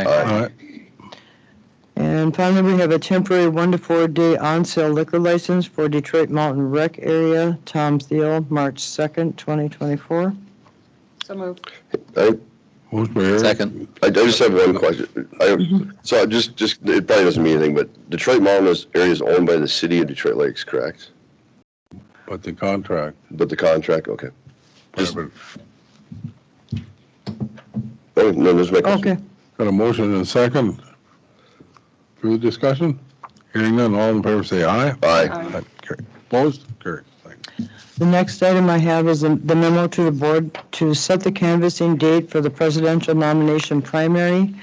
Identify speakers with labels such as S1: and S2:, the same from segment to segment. S1: Aye.
S2: And finally, we have a temporary one to four day on sale liquor license for Detroit Mountain Rec Area, Tom Thiel, March 2nd, 2024.
S3: So moved.
S4: Motion by Eric.
S1: Second.
S5: I I just have one question. I,
S2: Mm-hmm.
S5: so I just, just, it probably doesn't mean anything, but Detroit Mountain is- area is owned by the city of Detroit Lakes, correct?
S4: But the contract,
S5: But the contract, okay. Just-
S4: got
S5: Oh, no, there's my question.
S2: Okay,
S4: a motion and a second. Through the discussion? Hearing none, all in favor say aye.
S2: Uh,
S5: Aye.
S3: Um,
S4: Aye. Carry. Opposed? Carry. Thank you.
S2: the next item I have is the the memo to the board to set the canvassing date for the presidential nomination primary,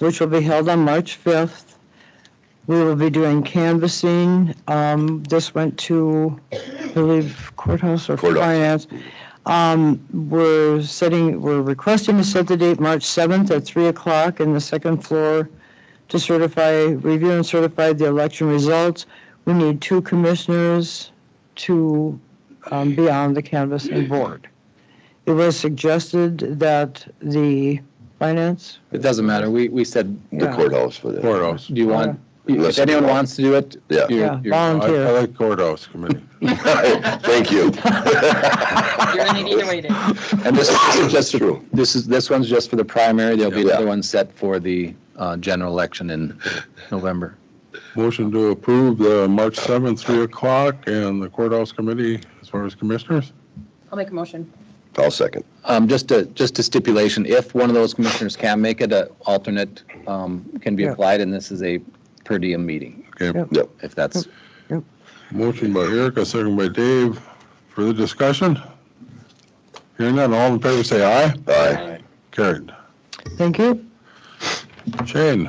S2: which will be held on March 5th. We will be doing canvassing. Um, This went to, I believe, courthouse or
S5: Courthouse.
S2: finance. Um, We're setting, we're requesting to set the date March 7th at 3 o'clock in the second floor to certify, review and certify the election results. We need two commissioners to um, be on the canvassing board. It was suggested that the finance,
S1: It doesn't matter. We, we said,
S5: The
S2: Yeah.
S5: courthouse for that.
S4: Courthouse.
S1: do you want, if anyone wants to do it?
S5: Yeah.
S1: you're-
S2: yeah,
S1: you're-
S4: I I
S2: volunteer.
S4: like courthouse committee.
S5: Thank you.
S3: You're gonna need to wait it.
S1: And this is
S5: That's
S1: just,
S5: true.
S1: this is, this one's just for the primary. There'll be
S5: Yeah.
S1: another one set for the uh, general election in November.
S4: Motion to approve the March 7th, 3 o'clock, and the courthouse committee as far as commissioners?
S3: I'll make a motion.
S5: I'll second.
S1: Um, Just a, just a stipulation, if one of those commissioners can make it, an alternate um, can be
S2: Yeah.
S1: applied, and this is a per diem meeting,
S4: Okay.
S2: Yep.
S1: if that's,
S4: Motion by Eric, a second by Dave. Further discussion? Hearing none, all in favor say aye.
S5: Aye.
S4: Carried.
S2: Thank you.
S4: Shane?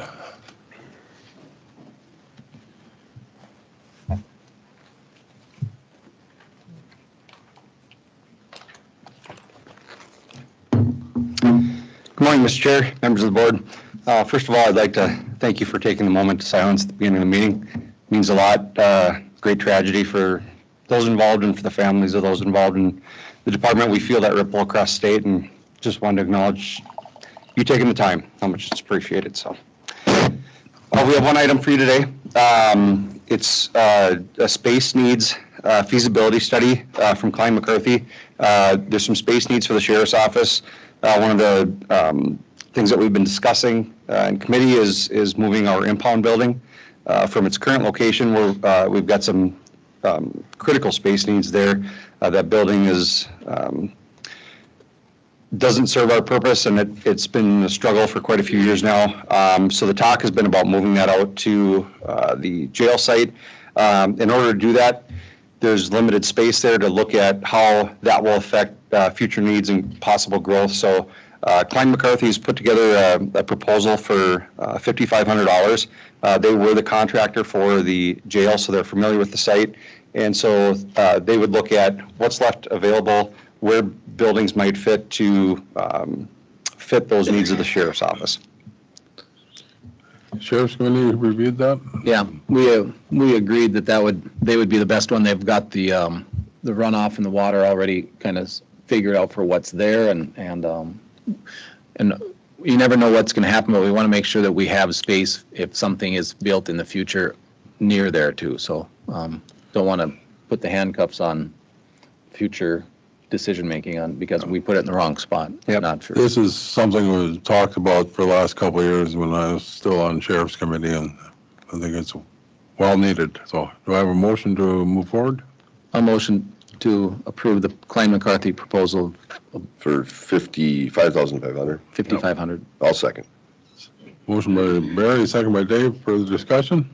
S6: Good morning, Mr. Chair, members of the board. Uh, First of all, I'd like to thank you for taking the moment to silence at the beginning of the meeting. It Means a lot. Uh, Great tragedy for those involved and for the families of those involved in the department. We feel that ripple across state and just wanted to acknowledge you taking the time, how much it's appreciated, so. Uh, We have one item for you today. Um, It's uh, a space needs uh, feasibility study uh, from Klein McCarthy. Uh, There's some space needs for the sheriff's office. Uh, One of the um, things that we've been discussing uh, in committee is, is moving our impound building uh, from its current location where uh, we've got some um, critical space needs there. Uh, That building is um, doesn't serve our purpose, and it, it's been a struggle for quite a few years now. Um, so the talk has been about moving that out to, uh, the jail site. Um, in order to do that, there's limited space there to look at how that will affect, uh, future needs and possible growth. So, uh, Klein McCarthy's put together a, a proposal for, uh, fifty-five hundred dollars. Uh, they were the contractor for the jail, so they're familiar with the site. And so, uh, they would look at what's left available, where buildings might fit to um, fit those needs of the sheriff's office.
S4: Sheriff's Committee reviewed that?
S1: yeah, we, uh, we agreed that that would, they would be the best one. They've got the, um, the runoff and the water already kind of figured out for what's there, and, and, um, and you never know what's going to happen, but we want to make sure that we have space if something is built in the future near there too, so um, don't want to put the handcuffs on future decision-making on, because we put it in the wrong spot.
S6: Yep.
S1: Not for,
S4: This is something we talked about for the last couple of years when I was still on Sheriff's Committee, and I think it's well needed. So do I have a motion to move forward?
S1: a motion to approve the Klein McCarthy proposal
S5: For 55,500.
S1: 5,500.
S5: I'll second.
S4: Motion by Barry, second by Dave. Further discussion?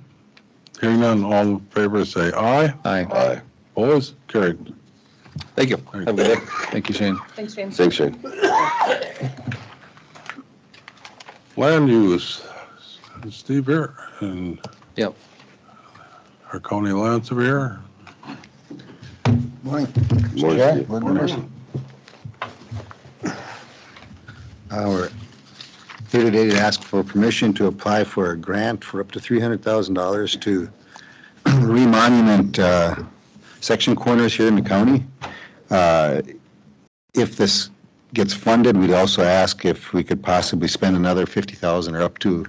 S4: Hearing none, all in favor say aye.
S1: Aye.
S5: Aye.
S4: Opposed? Carried.
S6: Thank you. Have a good day.
S1: Thank you, Shane.
S3: Thanks, James.
S5: Thanks, Shane.
S4: Land use, Steve here, and
S1: Yep.
S4: our county land surveyor.
S7: Morning.
S5: Morning.
S7: Yeah, good morning. Uh, We're here today to ask for permission to apply for a grant for up to $300,000 to remonument uh, section corners here in the county. Uh, If this
S6: gets funded, we'd also ask if we could possibly spend another 50,000 or up to